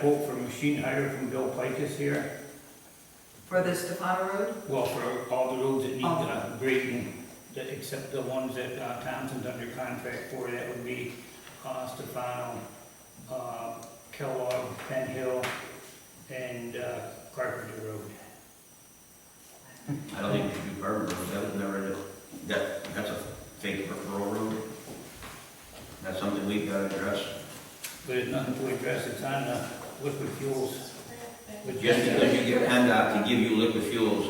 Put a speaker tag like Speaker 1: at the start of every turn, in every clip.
Speaker 1: Quote from machine hire from Bill Pikes here,
Speaker 2: For the Stefano Road?
Speaker 1: well, for all the roads that need
Speaker 2: Oh.
Speaker 1: uh, grading, that, except the ones that uh, Thompson's under contract for, that would be, uh, Stefano, uh, Kellogg, Penn Hill, and, uh, Carpenter Road.
Speaker 3: I don't think you should do Bourbon Road, that was never, that, that's a fake rural road. That's something we've got to address.
Speaker 1: But it's nothing to address, it's on the liquid fuels. which-
Speaker 3: Just because you get PennDOT to give you liquid fuels,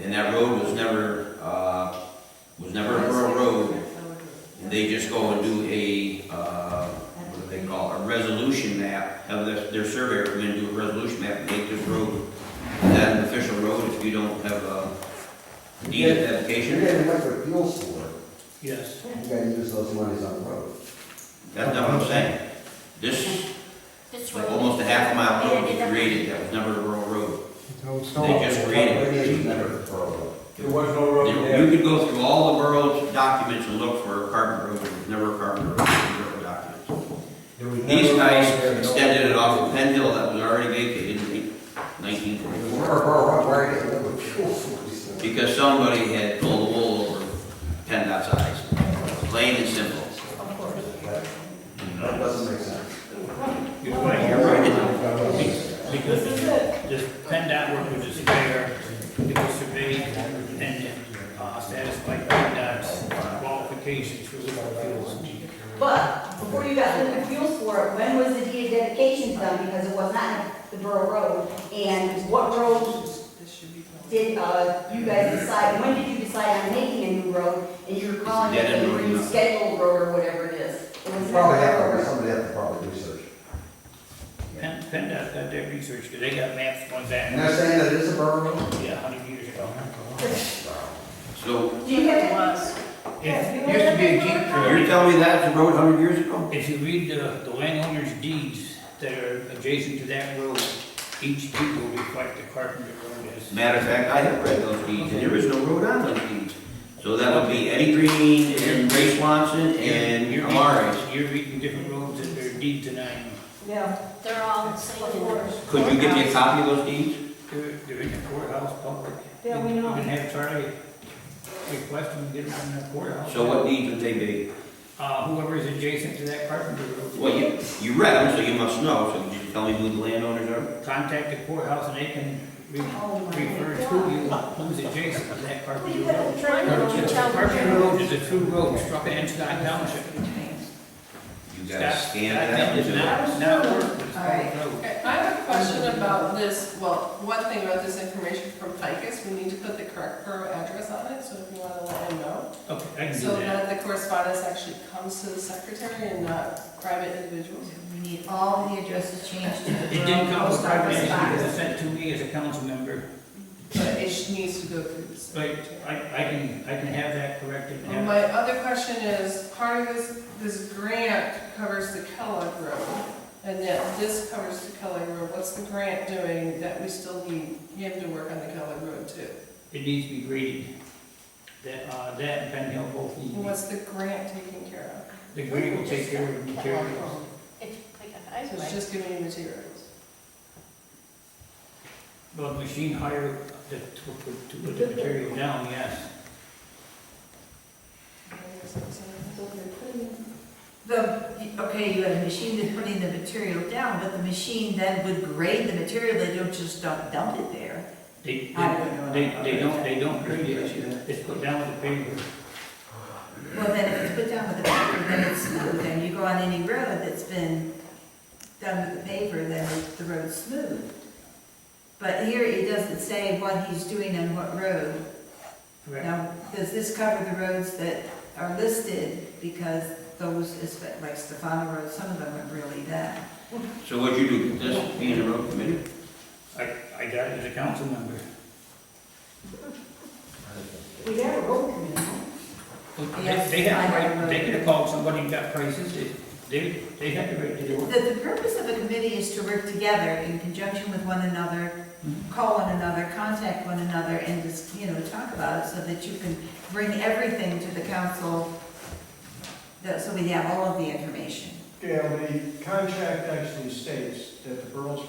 Speaker 3: and that road was never, uh, was never a rural road, and they just go and do a, uh, what do they call it, a resolution map, have their, their surveyor come in and do a resolution map and make this road, that an official road if you don't have a deed of
Speaker 4: You're
Speaker 3: dedication.
Speaker 4: getting liquid fuels for it,
Speaker 1: Yes,
Speaker 4: you gotta use those monies on the road.
Speaker 3: That's not what I'm saying. This
Speaker 5: This
Speaker 3: Like
Speaker 5: road.
Speaker 3: almost a half mile road was created, that was never a rural road. They just created
Speaker 4: It is
Speaker 3: it.
Speaker 4: never rural.
Speaker 6: There was no
Speaker 3: You
Speaker 6: road there.
Speaker 3: you could go through all the borough's documents and look for a carpet road, there was never a carpet road, in the borough documents.
Speaker 6: There was never
Speaker 3: These
Speaker 6: a road
Speaker 3: guys
Speaker 6: there, no-
Speaker 3: extended it off of Penn Hill that was already vacated in nineteen
Speaker 4: Where,
Speaker 3: forty-four,
Speaker 4: where, where are you getting liquid fuels for these things?
Speaker 3: because somebody had pulled the wool over PennDOT's eyes, plain and simple.
Speaker 4: That that doesn't make sense.
Speaker 1: you're right, you're right. Because this PennDOT work was just fair, it was surveyed and uh, satisfied PennDOT's qualifications for liquid fuels.
Speaker 7: But before you got liquid fuels for it, when was the deed of dedication done? Because it was not the borough road. And what road
Speaker 2: This should be.
Speaker 7: did, uh, you guys decide, when did you decide on making a new road? And you're calling it
Speaker 3: Dead
Speaker 7: a
Speaker 3: end road, no.
Speaker 7: rescheduled road or whatever it is? It was never
Speaker 4: Probably
Speaker 7: a
Speaker 4: have,
Speaker 7: road.
Speaker 4: somebody have to probably research.
Speaker 1: Penn- PennDOT got their research, because they got maps going back,
Speaker 4: And they're saying that it is a borough road?
Speaker 1: yeah, hundred years ago.
Speaker 3: So,
Speaker 7: Do you have it?
Speaker 1: It used to be a jeep
Speaker 3: you're
Speaker 1: trail.
Speaker 3: telling me that's a road hundred years ago?
Speaker 1: If you read the, the landowner's deeds that are adjacent to that road, each deed will reflect the Carpenter Road as.
Speaker 3: Matter of fact, I have read those deeds, and there is no road on those deeds. So that would be Eddie Green and Ray Swanson and
Speaker 1: You're reading-
Speaker 3: Amaris.
Speaker 1: You're reading different roads that they're deed denying.
Speaker 2: Yeah.
Speaker 5: They're all the same in there.
Speaker 3: Could you give me a copy of those deeds?
Speaker 1: They're, they're in the courthouse public.
Speaker 2: Yeah, we
Speaker 1: You
Speaker 2: know.
Speaker 1: can have Charlie request them to get them from the courthouse.
Speaker 3: So what deeds would they be?
Speaker 1: Uh, whoever is adjacent to that carpenter road.
Speaker 3: Well, you, you read them, so you must know, so could you tell me who the landowners are?
Speaker 1: Contact the courthouse and they can re-
Speaker 7: Oh, my
Speaker 1: refer to you who's adjacent to that carpenter road. Carpenter
Speaker 5: Carpenter
Speaker 1: Road is a true road struck in Scott Township.
Speaker 3: You gotta scan that
Speaker 1: Scott
Speaker 3: one
Speaker 1: did
Speaker 3: too.
Speaker 1: not, not work with
Speaker 2: All right.
Speaker 1: Scott Road.
Speaker 8: Okay, I have a question about this, well, one thing about this information from Ficus, we need to put the correct borough address on it, so if you wanna let him know.
Speaker 1: Okay, I can do
Speaker 8: So
Speaker 1: that.
Speaker 8: that the correspondence actually comes to the secretary and not private individuals.
Speaker 2: We need all the addresses changed to the
Speaker 1: It
Speaker 2: borough
Speaker 1: didn't come,
Speaker 2: post
Speaker 1: private
Speaker 2: office
Speaker 1: entity, it was
Speaker 2: box.
Speaker 1: sent to me as a council member.
Speaker 8: But it sh- needs to go through the
Speaker 1: But
Speaker 8: secretary.
Speaker 1: I, I can, I can have that corrected
Speaker 8: And
Speaker 1: now.
Speaker 8: my other question is, part of this, this grant covers the Kellogg Road, and that this covers the Kellogg Road, what's the grant doing that we still need him to work on the Kellogg Road too?
Speaker 1: It needs to be graded. That, uh, that and Penn Hill both need.
Speaker 8: And what's the grant taking care of?
Speaker 1: The grade will take care of the materials.
Speaker 8: So it's just giving you materials.
Speaker 1: Well, machine hire to, to, to put the material down, yes.
Speaker 2: The, okay, you had a machine that's putting the material down, but the machine then would grade the material, they don't just dump dump it there.
Speaker 1: They,
Speaker 2: I
Speaker 1: they,
Speaker 2: don't know.
Speaker 1: they they don't, they don't grade it, it's put down with the paper.
Speaker 2: Well, then if it's put down with the paper, then it's smooth, and you go on any road that's been done with the paper, then the road's smooth. But here, it doesn't say what he's doing on what road.
Speaker 1: Correct.
Speaker 2: Now, does this cover the roads that are listed, because those, is like Stefano Road, some of them are really bad.
Speaker 3: So what'd you do, this being a road committee?
Speaker 1: I, I got it as a council member.
Speaker 7: We have a road committee.
Speaker 1: They, they have, to write- they could have called somebody and got prices, They- they, they have to grade it.
Speaker 2: The, the purpose of a committee is to work together in conjunction with one another, call one another, contact one another, and just, you know, talk about it, so that you can bring everything to the council, that, so we have all of the information.
Speaker 6: Gail, the contract actually states that the borough's